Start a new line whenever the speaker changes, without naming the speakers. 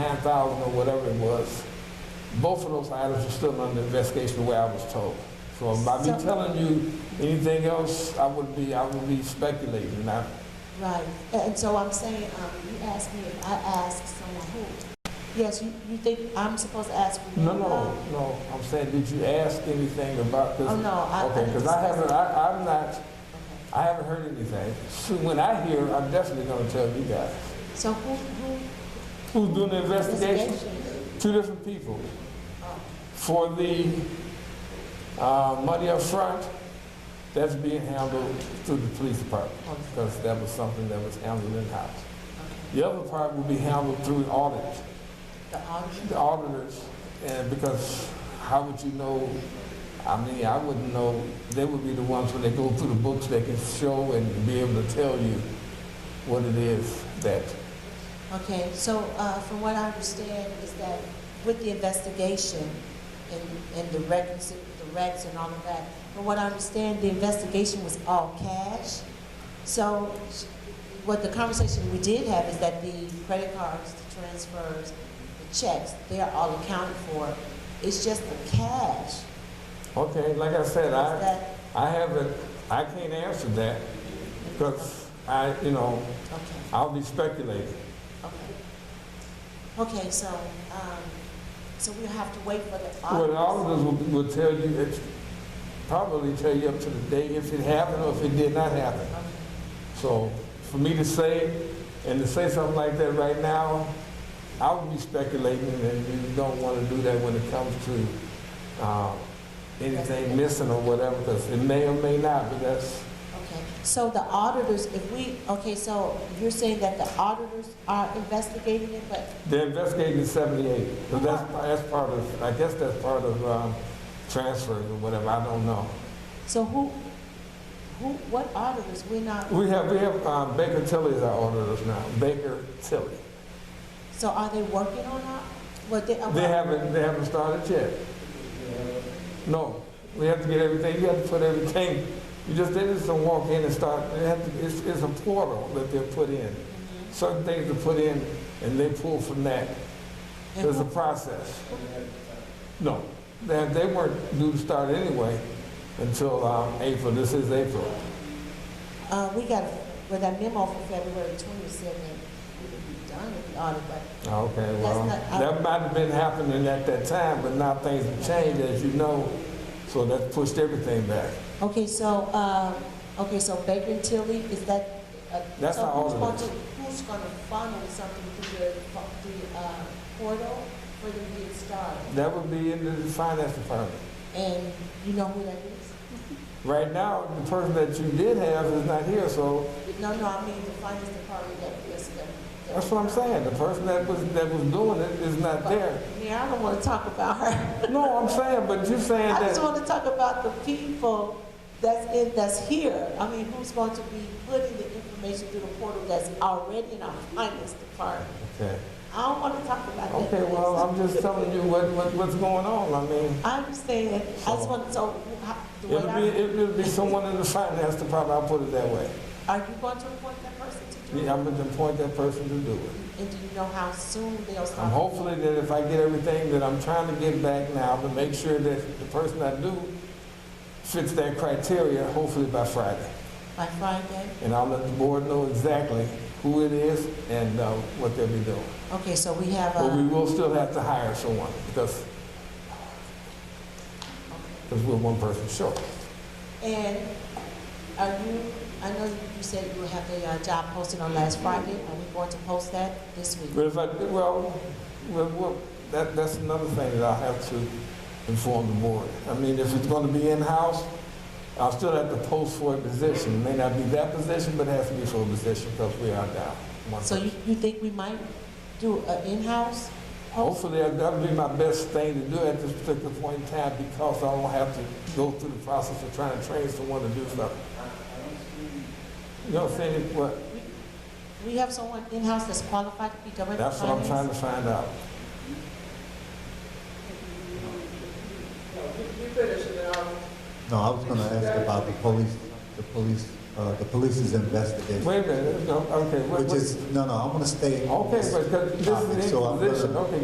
thousand or whatever it was, both of those items are still under investigation the way I was told. So by me
So-
telling you anything else, I would be, I would be speculating, and I,
Right, and so I'm saying, um, you asked me if I asked someone who. Yes, you, you think I'm supposed to ask? you?
no, no, no, I'm saying, did you ask anything about this?
Oh, no, I.
Okay, because I haven't, I, I'm not,
Okay.
I haven't heard anything. So when I hear, I'm definitely gonna tell you guys.
So who, who?
Who's doing the investigation?
investigation?
Two different people.
Oh,
For the, uh, money up front, that's being handled through the police department,
okay,
because that was something that was handled in-house.
okay.
The other part will be handled through audit,
The auditor,
the auditors, and because how would you know, I mean, I wouldn't know, they would be the ones when they go through the books, they can show and be able to tell you what it is that,
okay, so, uh, from what I understand is that with the investigation and, and the records, the recs and all of that, from what I understand, the investigation was all cash. So what the conversation we did have is that the credit cards, the transfers, the checks, they are all accounted for. It's just the cash.
okay, like I said, I.
That,
I haven't, I can't answer that because I, you know,
okay.
I'll be speculating.
Okay. Okay, so, um, so we'll have to wait for the
Well, the
auditors.
auditors will, will tell you, it's probably tell you up to the day if it happened or if it did not happen.
Okay.
So for me to say, and to say something like that right now, I would be speculating and you don't want to do that when it comes to, um, anything missing or whatever, because it may or may not, but that's,
Okay, so the auditors, if we, okay, so you're saying that the auditors are investigating it, but,
They're investigating seventy-eight, so that's, that's part of, I guess that's part of, um, transfers or whatever, I don't know.
so who, who, what auditors? We're not,
We have, we have, um, Baker Tilly is our auditors now, Baker Tilly.
so are they working on our, what they? uh,
They haven't, they haven't started yet. No, we have to get everything, you have to put everything, you just, they just don't walk in and start, they have to, it's, it's a portal that they're put in. Certain things are put in and they pull from that,
And
there's a
who-
process. No, they, they weren't due to start anyway until um, April, this is April.
Uh, we got, well, that memo from February twentieth said that we would be done with the audit, but
Okay, well,
That's not-
that might have been happening at that time, but now things have changed, as you know, so that pushed everything back.
Okay, so, uh, okay, so Baker and Tilly, is that? uh,
That's
so
our
who's going
auditors.
to- Who's gonna funnel something through the, through the, uh, portal for them to get started?
That would be in the finance department.
And you know who that is?
Right now, the person that you did have is not here, so
No, no, I mean the finance department that, that's, that. that-
that's what I'm saying. The person that was, that was doing it is not there.
Yeah, I don't wanna talk about her.
No, I'm saying, but you're saying
I just
that,
wanna talk about the people that's in, that's here. I mean, who's going to be putting the information through the portal that's already in our finance department?
okay,
I don't wanna talk about that.
okay, well, I'm just telling you what, what- what's going on, I mean.
I understand. I just want to, so, how- the way
It'll be,
I,
it'll be someone in the finance department, I'll put it that way.
are you going to appoint that person to do it?
Yeah, I'm gonna appoint that person to do it.
And do you know how soon they'll start?
I'm hopefully that if I get everything that I'm trying to get back now, to make sure that the person I do fits that criteria, hopefully by Friday.
By Friday?
And I'll let the board know exactly who it is and, uh, what they'll be doing.
Okay, so we have
But we
a,
will still have to hire someone, because, because we're one person short.
and are you, I know you said you have the uh, job posted on last Friday. Are we going to post that this week?
But if I, well, well, well, that, that's another thing that I'll have to inform the board. I mean, if it's gonna be in-house, I'll still have to post for a position. It may not be that position, but it has to be for a position because we are down. one
So you, you think we might do an in-house? post?
Hopefully, that- that'll be my best thing to do at this particular point in time because I don't have to go through the process of trying to train someone to do something. You know what I'm saying? What,
We have someone in-house that's qualified to be director of
that's what I'm trying
finance?
to find out.
No, I was gonna ask about the police, the police uh, the police's investigation,
Wait a minute, no, okay, what,
which
what-
is, no, no, I'm gonna stay. on
okay,
this
but 'cause this
topic,
is an
so I'm gonna-
inquisition, okay,